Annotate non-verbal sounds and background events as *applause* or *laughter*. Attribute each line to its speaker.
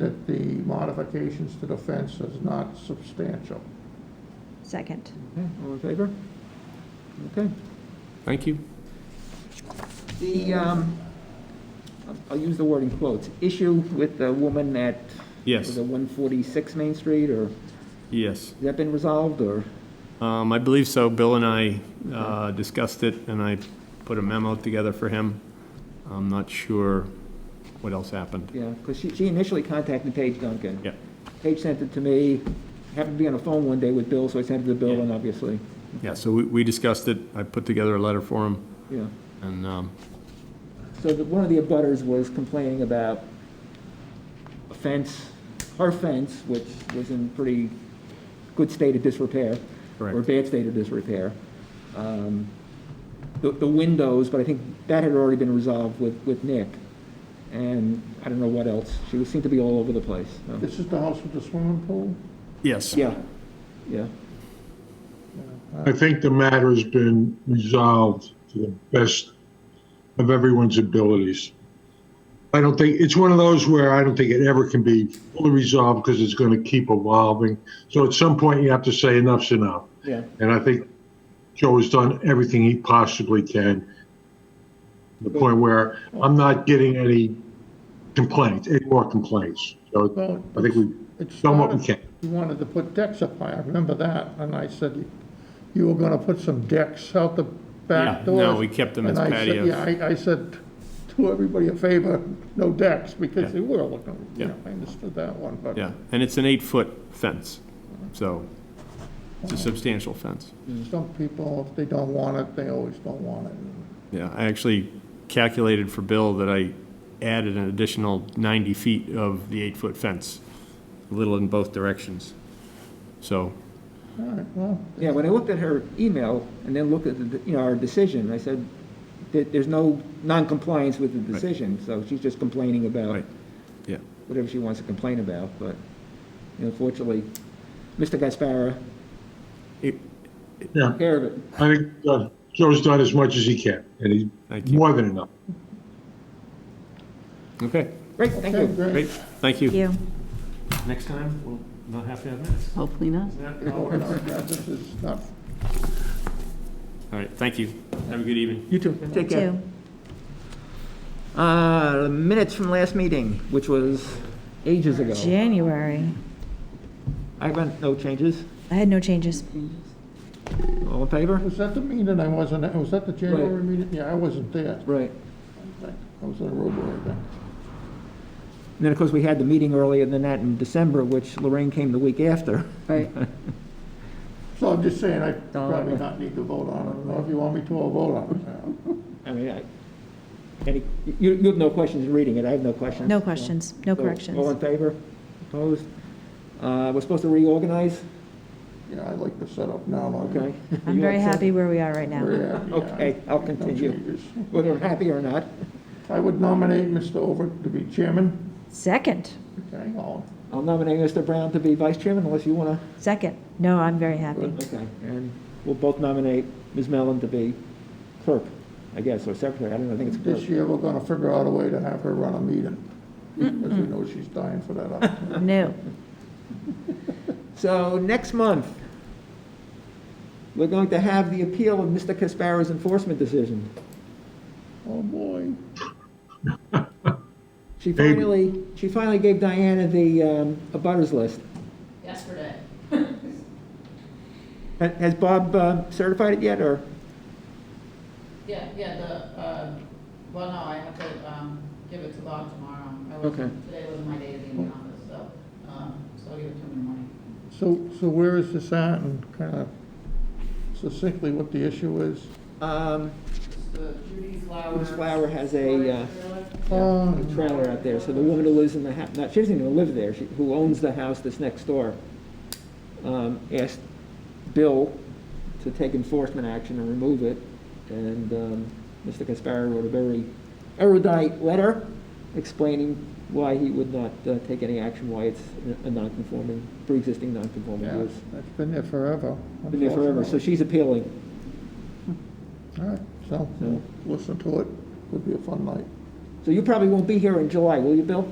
Speaker 1: that the modifications to the fence is not substantial.
Speaker 2: Second.
Speaker 3: Okay, all in favor? Okay.
Speaker 4: Thank you.
Speaker 3: The, um, I'll- I'll use the word in quotes, issue with the woman at, was
Speaker 4: Yes,
Speaker 3: it 146 Main Street, or, has
Speaker 4: yes.
Speaker 3: that been resolved, or?
Speaker 4: Um, I believe so. Bill and I uh, discussed it, and I put a memo together for him. I'm not sure what else happened.
Speaker 3: Yeah, because she, she initially contacted Paige Duncan.
Speaker 4: Yeah.
Speaker 3: Paige sent it to me, happened to be on the phone one day with Bill, so I sent it to Bill,
Speaker 4: Yeah.
Speaker 3: and obviously,
Speaker 4: Yeah, so we- we discussed it. I put together a letter for him,
Speaker 3: yeah.
Speaker 4: and um,
Speaker 3: So the, one of the abutters was complaining about a fence, her fence, which was in pretty good state of disrepair. Or
Speaker 4: Correct.
Speaker 3: bad state of disrepair. Um, The, the windows, but I think that had already been resolved with, with Nick. And I don't know what else. She was- seemed to be all over the place. so-
Speaker 1: This is the house with the swimming pool?
Speaker 4: yes.
Speaker 3: Yeah, yeah.
Speaker 5: I think the matter has been resolved to the best of everyone's abilities. I don't think, it's one of those where I don't think it ever can be fully resolved because it's going to keep evolving. So at some point, you have to say enough's enough.
Speaker 3: Yeah.
Speaker 5: And I think Joe has done everything he possibly can. to The point where I'm not getting any complaints, any more complaints. So
Speaker 1: Well,
Speaker 5: I think we've
Speaker 1: it's
Speaker 5: done what we can.
Speaker 1: You wanted to put decks up high, I remember that, and I said you were gonna put some decks out the
Speaker 4: Yeah,
Speaker 1: back door.
Speaker 4: no, we kept them as patios.
Speaker 1: Yeah, I, I said, do everybody a favor, no decks, because
Speaker 4: Yeah.
Speaker 1: they were looking, you
Speaker 4: Yeah.
Speaker 1: know, I understood that one, but.
Speaker 4: Yeah, and it's an eight-foot fence, so it's a substantial fence.
Speaker 1: Some people, if they don't want it, they always don't want it.
Speaker 4: Yeah, I actually calculated for Bill that I added an additional 90 feet of the eight-foot fence, a little in both directions. So,
Speaker 1: All right, well,
Speaker 3: Yeah, when I looked at her email and then looked at, the- you know, our decision, I said, there- there's no non-compliance with the decision, so she's just complaining about
Speaker 4: Right. yeah,
Speaker 3: whatever she wants to complain about, but unfortunately, Mr. Gaspara,
Speaker 4: It-
Speaker 5: Yeah.
Speaker 3: took care of it.
Speaker 5: I think uh, Joe's done as much as he can, and
Speaker 4: Thank
Speaker 5: he's
Speaker 4: you.
Speaker 5: more than enough.
Speaker 4: okay,
Speaker 3: Great, thank
Speaker 1: okay,
Speaker 3: you.
Speaker 1: great.
Speaker 4: great, thank you.
Speaker 2: You.
Speaker 4: Next time, we'll not have to have minutes.
Speaker 6: Hopefully not.
Speaker 1: No, no, no, This is not
Speaker 4: All right, thank you. Have a good evening.
Speaker 3: You too, take care.
Speaker 2: Two.
Speaker 3: Uh, minutes from last meeting, which was ages ago.
Speaker 2: January.
Speaker 3: I got no changes.
Speaker 2: I had no changes.
Speaker 3: All in favor?
Speaker 1: Was that the meeting I wasn't, at? was that the January
Speaker 3: Right.
Speaker 1: meeting? Yeah, I wasn't there.
Speaker 3: Right.
Speaker 1: I was in Roeborough, I think.
Speaker 3: And then, of course, we had the meeting earlier than that in December, which Lorraine came the week after.
Speaker 6: Right.
Speaker 1: So I'm just saying, I
Speaker 3: Don't
Speaker 1: probably
Speaker 3: worry.
Speaker 1: not need to vote on it, or if you want me to, I'll vote on it.
Speaker 3: I mean, I, any, you, you have no questions in reading it, I have no questions.
Speaker 2: No questions, no
Speaker 3: So, All in
Speaker 2: corrections.
Speaker 3: favor? Opposed? Uh, we're supposed to reorganize?
Speaker 1: Yeah, I like the setup now.
Speaker 3: Okay.
Speaker 2: I'm
Speaker 3: *laughs* You
Speaker 2: very
Speaker 3: accept?
Speaker 2: happy where we are right now.
Speaker 1: Very happy.
Speaker 3: Okay, I'll
Speaker 1: No
Speaker 3: continue.
Speaker 1: changes.
Speaker 3: Whether I'm happy or not.
Speaker 1: I would nominate Mr. Overt to be chairman.
Speaker 2: Second,
Speaker 1: Okay, all,
Speaker 3: I'll nominate Mr. Brown to be vice chairman unless you want
Speaker 2: second. No, I'm very happy.
Speaker 3: to. Okay. And we'll both nominate Ms. Mellon to be clerk, I guess, or secretary. I don't know, I think it's
Speaker 1: this
Speaker 3: clerk.
Speaker 1: year, we're gonna figure out a way to have her run a meeting, because we know she's dying for that opportunity.
Speaker 3: *laughs*
Speaker 2: No.
Speaker 3: So next month, we're going to have the appeal of Mr. Caspara's enforcement decision.
Speaker 1: Oh, boy.
Speaker 3: She
Speaker 5: Maybe.
Speaker 3: finally, she finally gave Diana the um, abutters list.
Speaker 7: yesterday.
Speaker 3: Ha- Has Bob uh, certified it yet, or?
Speaker 7: Yeah, yeah, the, uh, well, no, I have to, um, give it to Bob tomorrow. I was-
Speaker 3: Okay.
Speaker 7: Today was my day to be in the office, so, um, so I'll give it to him in the morning.
Speaker 1: So, so where is this at, and kind of succinctly what the issue is?
Speaker 3: Um,
Speaker 7: So Judy Flower.
Speaker 3: Miss Flower has a, uh,
Speaker 1: Oh,
Speaker 3: a trailer out there, so the woman who lives in the house, she doesn't even live there, she, who owns the house that's next door, um, asked Bill to take enforcement action and remove it, and, um, Mr. Caspara wrote a very erudite letter explaining why he would not, uh, take any action, why it's a non-conforming, pre-existing non-conforming
Speaker 1: yeah,
Speaker 3: use.
Speaker 1: it's been there forever.
Speaker 3: Been there forever, so she's appealing.
Speaker 1: All right, so, we'll listen to it, could be a fun night.
Speaker 3: So you probably won't be here in July, will you, Bill?